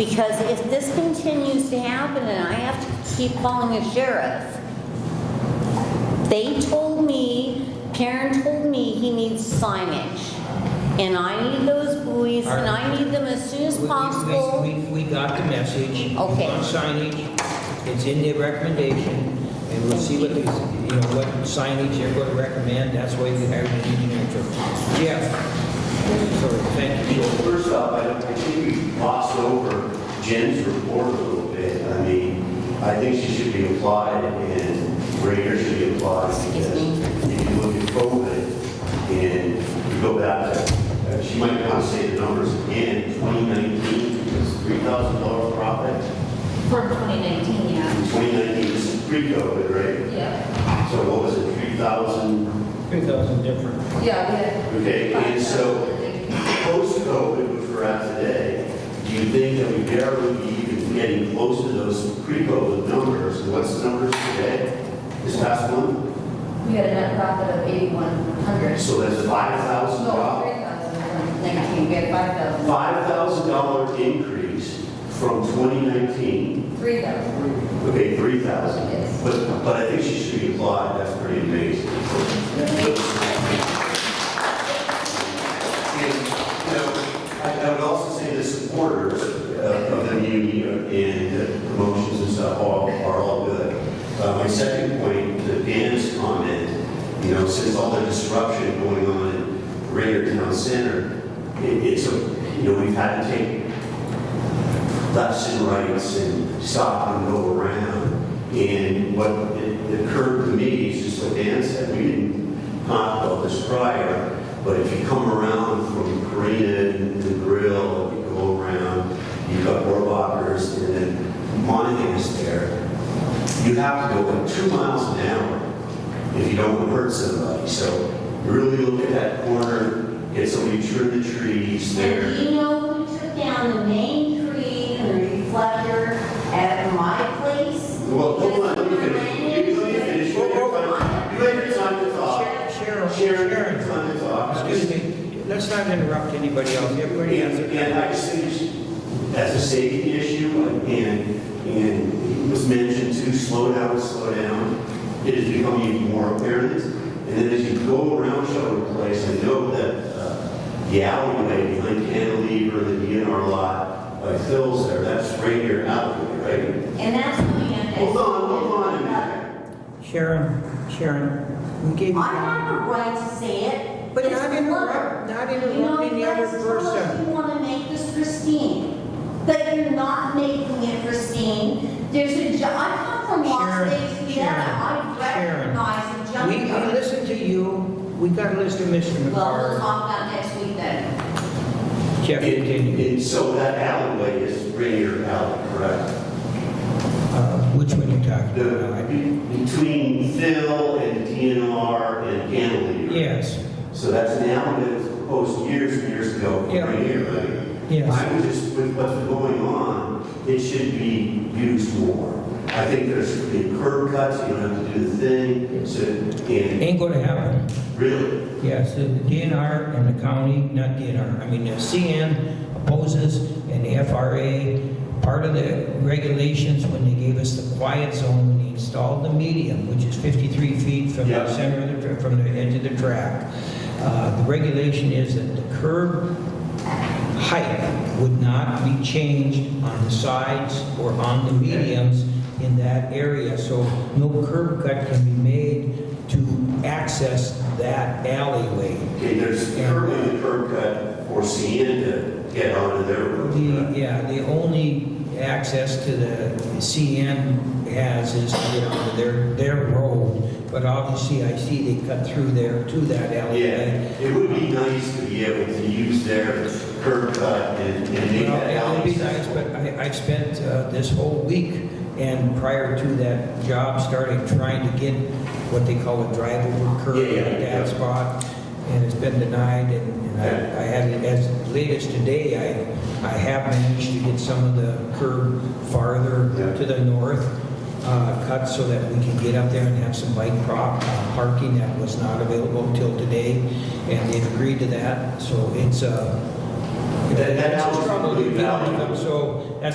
Because if this continues to happen and I have to keep calling the sheriff, they told me, Karen told me he needs signage. And I need those buoys and I need them as soon as We- we- possible. We, we got the message. We Okay. want signage, it's in their recommendation, and we'll see what, they- you know, what signage they're going to recommend, that's why we hired an engineer to. Jeff, sorry, thank you. Well, first off, I I think we glossed over Jen's report a little bit. I mean, I think she should be applied and Rainier should be applied. Excuse because me. If you look at COVID and you go back to, uh, she might want to say the numbers again, 2019 was $3,000 profit. For 2019, yeah. 2019 this is pre-COVID, right? Yeah. So what was it, 3,000? Three thousand different. Yeah, we had. Okay, and so Post-COVID, which we're at today, do you think that we barely be even getting close to those pre-COVID numbers? And What's the numbers today, this past month? We had a net profit of 8,100. So that's No, $5,000. 3,119, we had 5,000. $5,000 increase from 2019, 3,000. okay, 3,000. Yes. But, but I think she should be applauded, that's pretty amazing. And, you know, I I would also say the supporters uh, of the union and the promotions and stuff are, are all good. Uh, My second point, to Dan's comment, you know, since all the disruption going on in Rayner Town Center, it- it's, a you know, we've had to take lefts and rights and stop and go around. And what it- it occurred to me is just what Dan said, we didn't contemplate this prior, but if you come around from Karina and the grill, you go around, you've got Rohrbacher's and then Monahan's there, you have to go like two miles an hour if you don't want to hurt somebody. So really look at that corner, get somebody to trim the trees there. And do you know who took down the main tree and the reflector at my place? Well, hold on, let me finish. You- Let me finish. You had your time- you had your time to talk. Cheryl, Sharon, your Sharon, time to talk. excuse me, let's not interrupt anybody else, everybody has And, and I just think she- that's a safety issue, and, and it was mentioned to slow down, slow down. It is becoming even more apparent. And then as you go around Shelter in Place, I know that uh, the alleyway behind Cantilever, the DNR lot, by Phil's there, that's right here alleyway, right? And that's coming up. Hold on, hold on a minute. Sharon, Sharon, we gave you. I have a right to say it. But It's not a interrupt, blur. not You know, interrupt any you other guys tell us person. You want to make this pristine, but you're not making it pristine. There's a, ju- I come from Las Sharon, Vegas, Nevada. Sharon, I Sharon. recognize a We, we junkyard. listened to you, we got a list of Well, Mr. we'll McCarr. talk about next week then. Jeff, And, continue. and so that alleyway is Rainier Alley, correct? Uh, Which one you talking The, about? between Phil and DNR and Cantilever. Yes, So that's an alley that was proposed years and years ago, Yeah. right here, right? Yes. I was just, with what's going on, it should be used more. I think there should be curb cuts, you don't have to do the thing, so, and ain't gonna happen. really, Yes, the DNR and the county, not DNR, I mean, the CN opposes and the FRA, part of the regulations when they gave us the quiet zone, when they installed the medium, which is 53 feet from the Yeah. center of the, tra- from the edge of the track, uh, the regulation is that the curb height would not be changed on the sides or on the mediums in that area, so no curb cut can be made to access that alleyway. okay, there's currently the curb cut for CN to get onto their The, road. yeah, the only access to the CN has is to get onto their, their road, but obviously I see they cut through there to that Yeah, alleyway. it would be nice to be able to use their curb cut and, and make Well, that it alley. would be nice, but I, I spent uh, this whole week and prior to that job starting, trying to get what they call a drive-over curve Yeah, yeah, at yeah. that spot, and it's been denied, and and I I had, it as late as today, I, I have managed to get some of the curb Yeah. farther to the north uh, cut so that we can get up there and have some bike prop uh, parking that was not available till today, and they've agreed to that, so it's, uh, That, that That's the was trouble really with valuable. them, so that's